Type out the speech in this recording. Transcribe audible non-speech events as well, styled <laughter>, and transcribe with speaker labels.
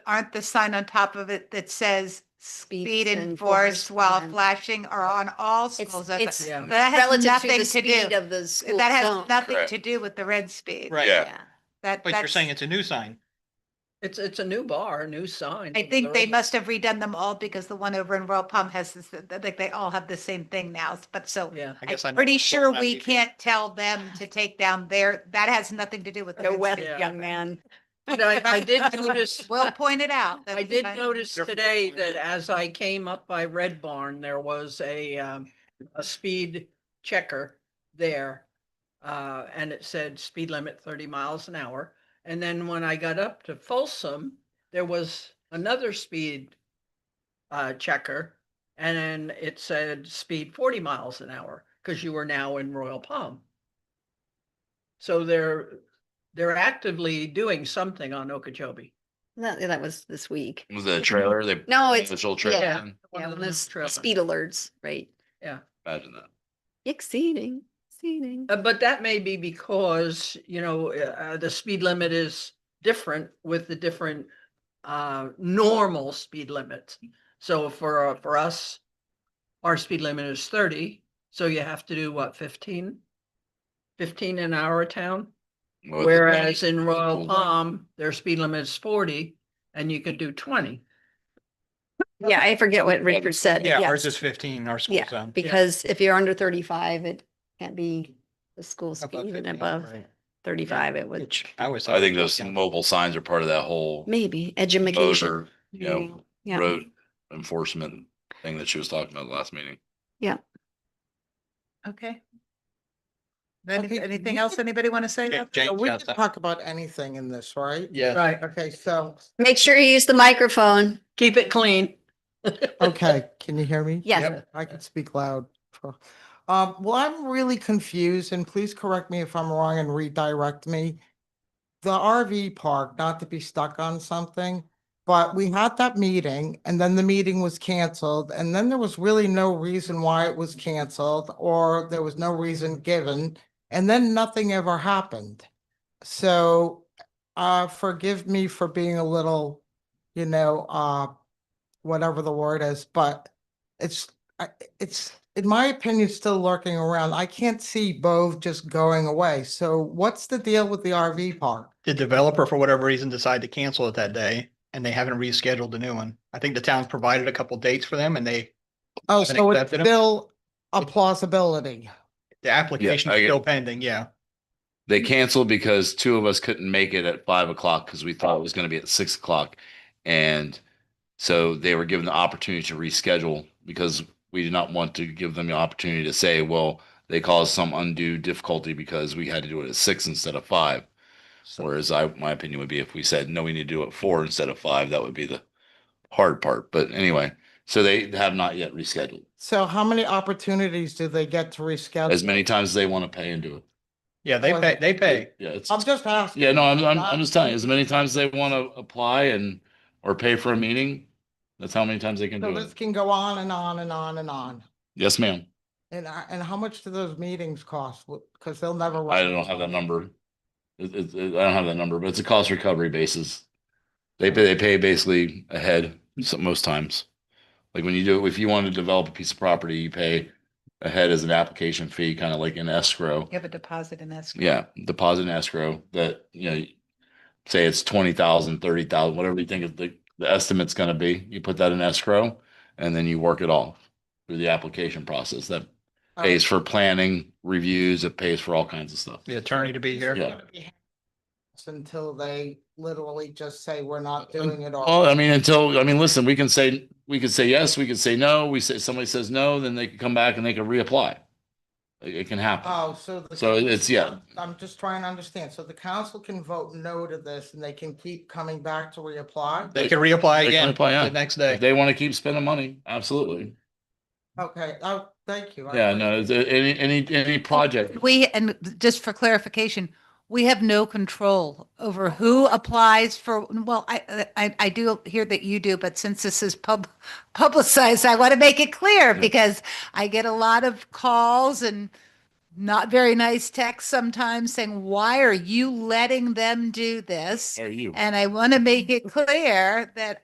Speaker 1: aren't the sign on top of it that says speed
Speaker 2: Speed
Speaker 1: enforced
Speaker 2: enforced
Speaker 1: while
Speaker 2: on-
Speaker 1: flashing or on all
Speaker 2: It's,
Speaker 1: schools? That
Speaker 2: it's
Speaker 3: Yeah.
Speaker 1: has
Speaker 2: relative to
Speaker 1: nothing
Speaker 2: the
Speaker 1: to
Speaker 2: speed
Speaker 1: do,
Speaker 2: of the school
Speaker 1: that
Speaker 2: zone.
Speaker 1: has nothing
Speaker 4: Correct.
Speaker 1: to do with the red speed.
Speaker 5: Right.
Speaker 4: Yeah,
Speaker 2: Yeah.
Speaker 1: That,
Speaker 5: But you're
Speaker 1: that's,
Speaker 5: saying it's a new sign.
Speaker 3: It's, it's a new bar, a new sign.
Speaker 1: I think they
Speaker 3: They're-
Speaker 1: must have redone them all because the one over in Royal Palm has this, like, they all have the same thing now, but so.
Speaker 3: Yeah,
Speaker 5: I guess
Speaker 1: I'm
Speaker 5: I'm
Speaker 1: pretty sure
Speaker 5: not
Speaker 1: we
Speaker 5: either.
Speaker 1: can't tell them to take down their, that has nothing to do with. the
Speaker 2: No
Speaker 1: red
Speaker 2: way,
Speaker 1: speed.
Speaker 3: Yeah.
Speaker 2: young man.
Speaker 3: <laughs> but I, I did
Speaker 1: <laughs>
Speaker 2: <laughs>
Speaker 3: notice,
Speaker 1: We'll point it out.
Speaker 3: I
Speaker 1: That's
Speaker 3: did
Speaker 1: fine.
Speaker 3: notice
Speaker 5: Different
Speaker 3: today
Speaker 5: color.
Speaker 3: that as I came up by Red Barn, there was a, um, a speed checker there. Uh, and it said speed limit thirty miles an hour. And then when I got up to Folsom, there was another speed uh, checker. And then it said speed forty miles an hour, because you were now in Royal Palm. So they're, they're actively doing something on Okeechobee.
Speaker 2: That, that was this week.
Speaker 4: was it a trailer? They
Speaker 2: No, it's,
Speaker 4: official
Speaker 2: yeah.
Speaker 4: trailer.
Speaker 3: One
Speaker 2: yeah,
Speaker 3: of
Speaker 2: one of
Speaker 3: them
Speaker 2: those
Speaker 3: trailers.
Speaker 2: speed alerts, right?
Speaker 4: Imagine that.
Speaker 2: Exceeding, exceeding.
Speaker 3: Uh, But that may be because, you know, uh, the speed limit is different with the different uh, normal speed limits. So for, uh, for us, our speed limit is thirty, so you have to do what, fifteen? Fifteen in our town,
Speaker 6: Oh,
Speaker 4: Well, it's-
Speaker 3: whereas in Royal
Speaker 4: Cool.
Speaker 3: Palm, their speed limit is forty and you could do twenty. uh,
Speaker 2: Yeah, I forget what Richard said.
Speaker 5: Yeah,
Speaker 2: Uh, Yeah,
Speaker 5: ours is fifteen, our school
Speaker 2: Yeah,
Speaker 5: zone.
Speaker 2: because if you're under thirty-five, it can't be the school
Speaker 5: Above
Speaker 2: speed and
Speaker 5: 15,
Speaker 2: above
Speaker 5: right.
Speaker 2: thirty-five, it would,
Speaker 5: Which I always.
Speaker 4: I think
Speaker 5: thought-
Speaker 4: those
Speaker 5: yeah.
Speaker 4: mobile signs are part of that whole
Speaker 2: maybe edumacation.
Speaker 4: motor, you know,
Speaker 2: Yeah.
Speaker 4: road enforcement thing that she was talking about last meeting.
Speaker 1: Okay. Then
Speaker 6: Okay,
Speaker 1: anything
Speaker 6: we
Speaker 1: else anybody want to say?
Speaker 5: Yeah,
Speaker 1: about-
Speaker 5: Jane,
Speaker 6: So We
Speaker 5: yeah,
Speaker 6: can
Speaker 5: that-
Speaker 6: talk about anything in this, right?
Speaker 5: Yeah,
Speaker 3: Right,
Speaker 6: Okay, so,
Speaker 2: Make sure you use the microphone.
Speaker 3: keep it clean. <laughs>
Speaker 6: okay, can you hear me?
Speaker 2: Yes.
Speaker 5: Yep.
Speaker 6: I can speak loud. Um, well, I'm really confused and please correct me if I'm wrong and redirect me. The RV park, not to be stuck on something, but we had that meeting and then the meeting was canceled. And then there was really no reason why it was canceled or there was no reason given. And then nothing ever happened. So, uh, forgive me for being a little, you know, uh, whatever the word is, but it's, I, it's, in my opinion, still lurking around. I can't see Bove just going away. So what's the deal with the RV park?
Speaker 5: the developer, for whatever reason, decided to cancel it that day and they haven't rescheduled the new one. I think the town's provided a couple dates for them and they,
Speaker 6: Oh,
Speaker 5: Haven't
Speaker 6: so it's
Speaker 5: accepted 'em?
Speaker 6: still a plausibility.
Speaker 5: the application is
Speaker 4: I get-
Speaker 5: still pending, yeah.
Speaker 4: They canceled because two of us couldn't make it at five o'clock because we thought it was going to be at six o'clock. And so they were given the opportunity to reschedule because we did not want to give them the opportunity to say, well, they caused some undue difficulty because we had to do it at six instead of five. Whereas I, my opinion would be if we said, no, we need to do it four instead of five, that would be the hard part. But anyway, so they have not yet rescheduled
Speaker 6: So how many opportunities do they get to reschedule?
Speaker 4: as many times as they want to pay and do it.
Speaker 5: Yeah, they pay, they pay.
Speaker 4: Yeah, it's.
Speaker 6: I'm just asking.
Speaker 4: Yeah, no, I'm, I'm, I'm just telling you, as many times they want to apply and, or pay for a meeting, that's how many times they can
Speaker 6: So
Speaker 4: do
Speaker 6: this
Speaker 4: it.
Speaker 6: can go on and on and on and on.
Speaker 4: Yes, ma'am.
Speaker 6: And, I- and how much do those meetings cost? Because they'll never.
Speaker 4: I don't have that number. It, it, it- I don't have that number, but it's a cost recovery basis. They pay, they pay basically ahead so- most times. Like when you do, if you want to develop a piece of property, you pay ahead as an application fee, kind of like an escrow.
Speaker 1: You have a deposit in escrow.
Speaker 4: Yeah, deposit and escrow that, you know, say it's twenty thousand, thirty thousand, whatever you think is the, the estimate's gonna be, you put that in escrow and then you work it off through the application process. That
Speaker 6: Oh,
Speaker 4: pays for planning, reviews, it pays for all kinds of stuff.
Speaker 5: The attorney to be here.
Speaker 4: Yeah.
Speaker 6: Until they literally just say, we're not
Speaker 4: Um,
Speaker 6: doing it all.
Speaker 4: Well, I mean, until, I mean, listen, we can say, we could say yes, we could say no, we say, somebody says no, then they can come back and they can reapply. It, it can happen.
Speaker 6: Oh, so. the
Speaker 4: So it's- yeah.
Speaker 6: council- I'm just trying to understand. So the council can vote no to this and they can keep coming back to reapply?
Speaker 5: They can reapply
Speaker 4: They can
Speaker 5: again
Speaker 4: apply, yeah.
Speaker 5: the next
Speaker 4: If
Speaker 5: day.
Speaker 4: they want to keep spending money, absolutely.
Speaker 6: Okay, oh, thank you. I
Speaker 4: Yeah, no, it's- any, any, any project.
Speaker 1: We, and just for clarification, we have no control over who applies for, well, I, I, I do hear that you do, but since this is pub, publicized, I want to make it clear because I get a lot of calls and not very nice text sometimes saying, why are you letting them do this?
Speaker 4: Are you?
Speaker 1: And I want to make it clear that